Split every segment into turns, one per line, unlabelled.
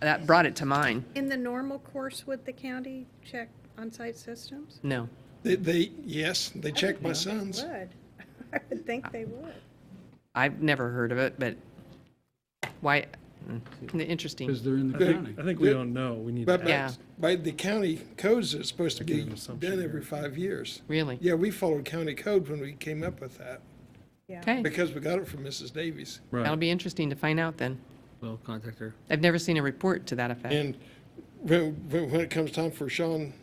that brought it to mind.
In the normal course, would the county check on-site systems?
No.
They, they, yes, they checked my son's.
Would. I would think they would.
I've never heard of it, but why, mm, interesting.
because they're in the
I
county.
think, I think we don't know. We need to
But
ask.
Yeah.
by, by the county codes, it's supposed to
Making
be
an assumption
done
here.
every five years.
Really?
Yeah, we followed county code when we came up with that,
Yeah.
Okay.
because we got it from Mrs. Davies.
That'll
Right.
be interesting to find out then.
Well, contact her.
I've never seen a report to that effect.
And when, when, when it comes time for Sean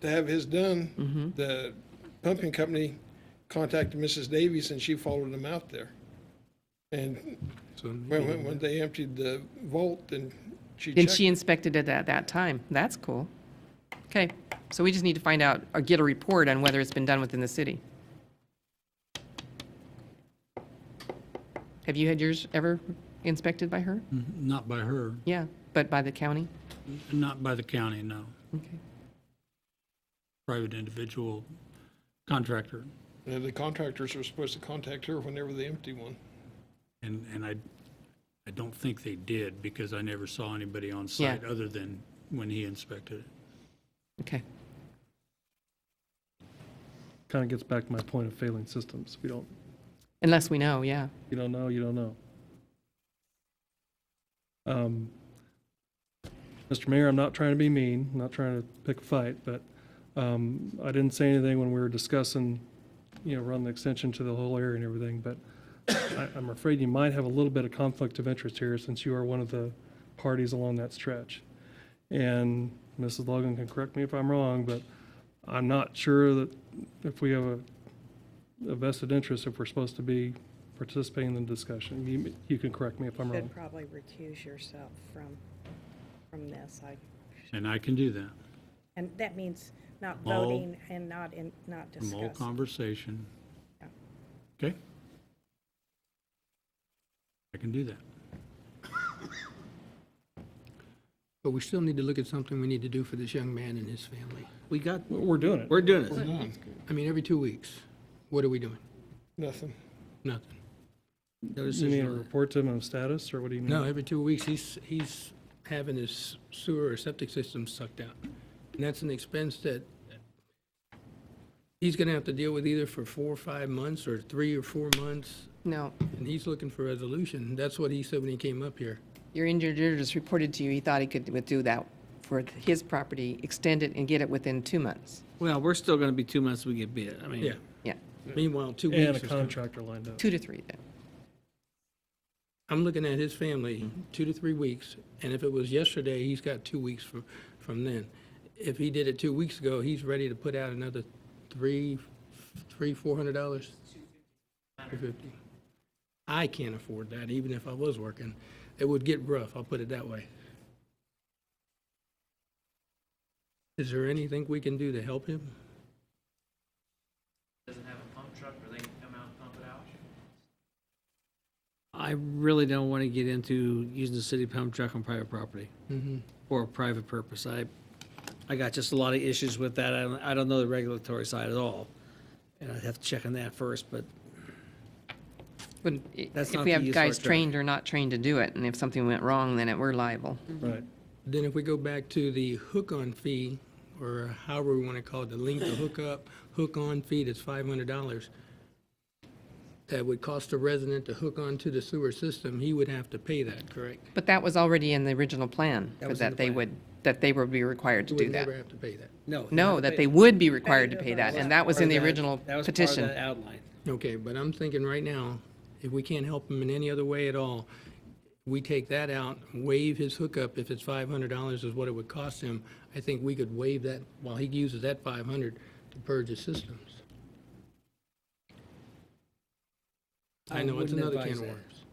to have his
Mm-hmm.
done, the pumping company contacted Mrs. Davies and she followed them out there. And
So
when, when, when they emptied the vault and she
And she
checked,
inspected it at that time. That's cool. Okay, so we just need to find out or get a report on whether it's been done within the city. Have you had yours ever inspected by her?
Not by her,
Yeah, but by the county?
not by the county, no.
Okay.
Private individual contractor.
and the contractors were supposed to contact her whenever they empty one.
And, and I, I don't think they did because I never saw anybody on site other than when he inspected it.
Okay.
Kind of gets back to my point of failing systems. We don't,
Unless we know, yeah.
you don't know, you don't know. Um, Mr. Mayor, I'm not trying to be mean, I'm not trying to pick a fight, but um, I didn't say anything when we were discussing, you know, run the extension to the whole area and everything, but I, I'm afraid you might have a little bit of conflict of interest here since you are one of the parties along that stretch. And Mrs. Logan can correct me if I'm wrong, but I'm not sure that if we have a a vested interest if we're supposed to be participating in the discussion. You, you can correct me if I'm wrong.
Should probably recuse yourself from, from this. I,
And I can do that
and that means not
All-
voting and not in, not
from all
discussing.
conversation.
Yeah.
Okay? I can do that.
But we still need to look at something we need to do for this young man and his family. We got,
We're we're doing it.
we're doing it. I mean, every two weeks, what are we doing?
Nothing.
Nothing. No
You mean a
decision.
report to him of status, or what do you mean?
No, every two weeks, he's, he's having his sewer or septic system sucked out. And that's an expense that he's gonna have to deal with either for four or five months, or three or four months,
No,
and he's looking for resolution. That's what he said when he came up here.
your engineer just reported to you, he thought he could do that for his property, extend it and get it within two months.
Well, we're still gonna be two months we get bid. I mean.
Yeah,
Yeah,
meanwhile, two weeks.
And a
is coming.
contractor lined up.
two to three then.
I'm looking at his family, two to three weeks, and if it was yesterday, he's got two weeks from, from then. If he did it two weeks ago, he's ready to put out another three, three, four hundred dollars? Two fifty. I can't afford that, even if I was working. It would get rough, I'll put it that way. Is there anything we can do to help him?
doesn't have a pump truck where they can come out and pump it out?
I really don't wanna get into using the city pump truck on private property for a private purpose. I, I got just a lot of issues with that. I don't, I don't know the regulatory side at all. And I'd have to check on that first, but
But i-
That's
if
not
we
the
have
use of
guys
our truck.
trained or not trained to do it, and if something went wrong, then it, we're liable.
Right.
Then if we go back to the hook-on fee, or however we want to call it, the link to hook up, hook-on fee, that's five hundred dollars. That would cost a resident to hook on to the sewer system, he would have to pay that, correct?
But that was already in the original plan,
That
for
was in
that
the
they
plan.
would, that they would be required to
He
do
would
that.
never have to pay that.
no.
No, that they would be required to pay that, and that was in the
That-
original
that was part of
petition.
that outline.
Okay, but I'm thinking right now, if we can't help him in any other way at all, we take that out, waive his hookup, if it's five hundred dollars is what it would cost him, I think we could waive that while he uses that five hundred to purge his systems. I know, it's
wouldn't
another can
advise
of
that.
worms.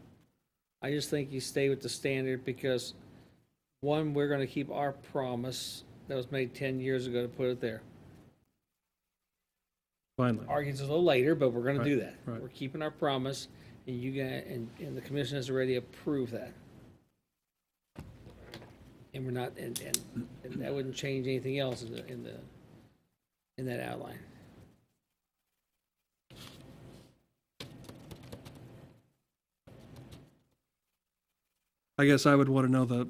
I just think you stay with the standard because, one, we're gonna keep our promise that was made ten years ago to put it there.
Finally.
argues a little later, but we're gonna do
Right,
that.
right.
We're keeping our promise, and you guys, and, and the commission has already approved that. And we're not, and, and, and that wouldn't change anything else in the, in the, in that outline.
I guess I would want to know the